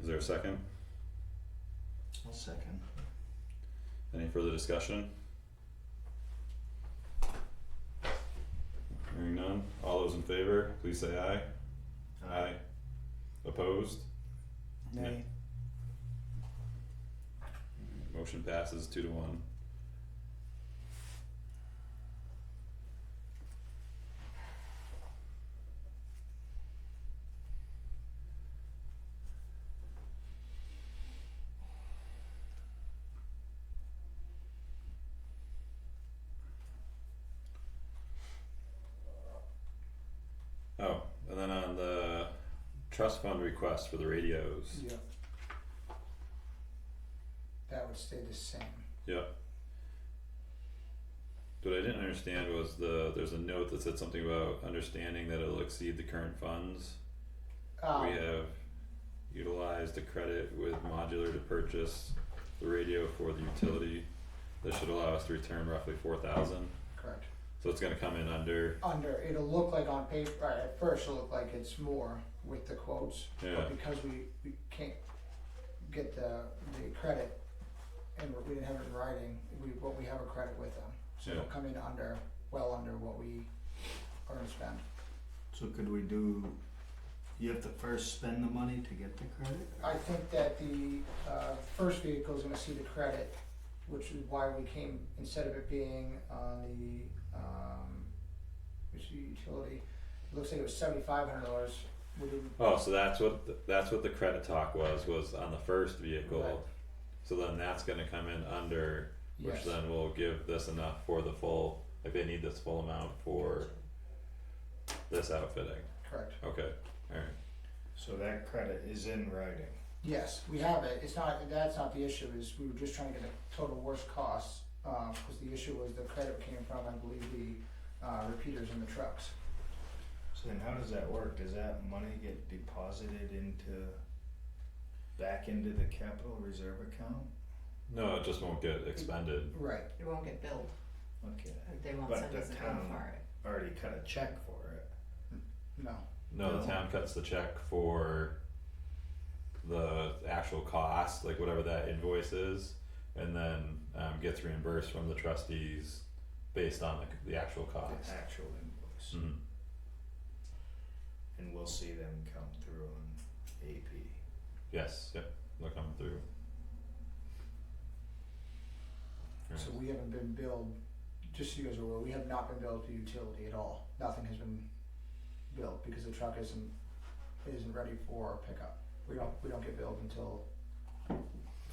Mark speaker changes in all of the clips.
Speaker 1: there a second?
Speaker 2: I'll second.
Speaker 1: Any further discussion? Hearing none, all those in favor, please say aye. Aye. Opposed?
Speaker 3: Nay.
Speaker 1: Motion passes two to one. Oh, and then on the trust fund request for the radios.
Speaker 3: Yep. That would stay the same.
Speaker 1: What I didn't understand was the, there's a note that said something about understanding that it'll exceed the current funds.
Speaker 3: Um,
Speaker 1: We have utilized the credit with modular to purchase the radio for the utility. This should allow us to return roughly four thousand,
Speaker 3: Correct.
Speaker 1: so it's gonna come in under,
Speaker 3: Under, it'll look like on paper, or at first it'll look like it's more with the quotes.
Speaker 1: Yeah.
Speaker 3: But because we, we can't get the, the credit and we didn't have it in writing, we, what we have a credit with them. So it'll
Speaker 1: Yeah.
Speaker 3: come in under, well under what we earn and spend.
Speaker 2: So could we do, you have to first spend the money to get the credit?
Speaker 3: I think that the uh first vehicle is gonna see the credit, which is why we came, instead of it being on the um, which is utility, it looks like it was seventy-five hundred dollars, we didn't,
Speaker 1: oh, so that's what, th- that's what the credit talk was, was on the first
Speaker 3: Right.
Speaker 1: vehicle. So then that's gonna come in under, which
Speaker 3: yes,
Speaker 1: then will give this enough for the full, like they need this full amount for this outfitting,
Speaker 3: correct.
Speaker 1: okay, alright.
Speaker 4: So that credit is in writing.
Speaker 3: Yes, we have it, it's not, that's not the issue, is we were just trying to get the total worst costs, uh, cause the issue was the credit came from, I believe, the uh repeaters in the trucks.
Speaker 4: So then how does that work? Does that money get deposited into, back into the capital reserve account?
Speaker 1: No, it just won't get expended,
Speaker 3: Right,
Speaker 5: It won't get billed,
Speaker 4: Okay,
Speaker 5: but they won't
Speaker 4: But
Speaker 5: send
Speaker 4: the
Speaker 5: us a bill
Speaker 4: town-
Speaker 5: for it.
Speaker 4: already cut a check for it.
Speaker 3: no,
Speaker 1: No, the
Speaker 4: No.
Speaker 1: town cuts the check for the actual cost, like whatever that invoice is, and then um, gets reimbursed from the trustees based on the, the actual cost.
Speaker 4: The actual invoice,
Speaker 1: Mm.
Speaker 4: and we'll see them come through on AP.
Speaker 1: Yes, yep, they'll come through.
Speaker 3: So
Speaker 1: Alright,
Speaker 3: we haven't been billed, just so you guys are aware, we have not been billed to utility at all. Nothing has been built because the truck isn't, isn't ready for pickup. We don't, we don't get billed until it's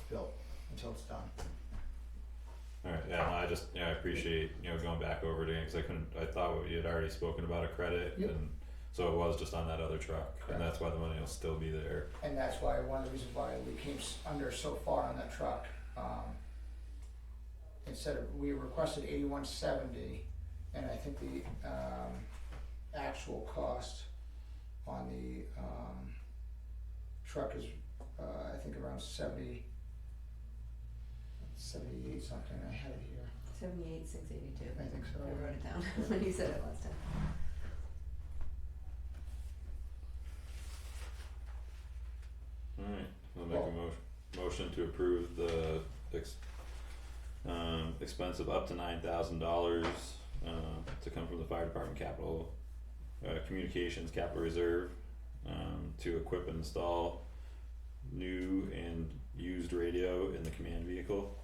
Speaker 3: built, until it's done.
Speaker 1: Alright, yeah, no, I just, yeah, I appreciate, you know, going back over it again, cause I couldn't, I thought we had already spoken about a credit
Speaker 3: Yep.
Speaker 1: and so it was just on that other truck,
Speaker 3: Correct.
Speaker 1: and that's why the money will still be there.
Speaker 3: And that's why, one of the reasons why we came s- under so far on that truck, um, instead of, we requested eighty-one seventy, and I think the, um, actual cost on the, um, truck is, uh, I think around seventy, seventy-eight something, I had it here,
Speaker 5: Seventy-eight, six eighty-two.
Speaker 3: I think so.
Speaker 5: I wrote it down when you said it last time.
Speaker 1: Alright, I'll make a
Speaker 3: Well-
Speaker 1: motion, motion to approve the ex- um, expense of up to nine thousand dollars, uh, to come from the fire department capital, uh, communications capital reserve, um, to equip and install new and used radio in the command vehicle.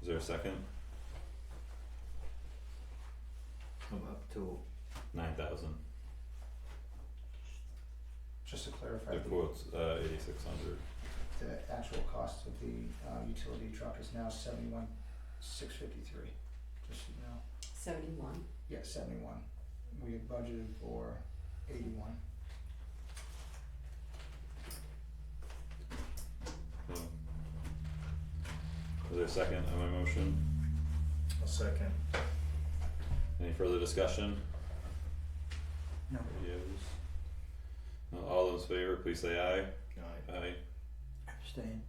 Speaker 1: Is there a second?
Speaker 2: Come up to,
Speaker 1: Nine thousand,
Speaker 3: Just to clarify,
Speaker 1: the
Speaker 3: the-
Speaker 1: quote's, uh, eighty-six hundred,
Speaker 3: the actual cost of the, uh, utility truck is now seventy-one, six fifty-three, just so you know.
Speaker 5: Seventy-one.
Speaker 3: Yeah, seventy-one. We had budgeted for eighty-one.
Speaker 1: um. Is there a second on my motion?
Speaker 4: A second.
Speaker 1: Any further discussion?
Speaker 3: No.
Speaker 1: Yes. All those in favor, please say aye.
Speaker 4: Aye.
Speaker 1: Aye.
Speaker 3: Abstain.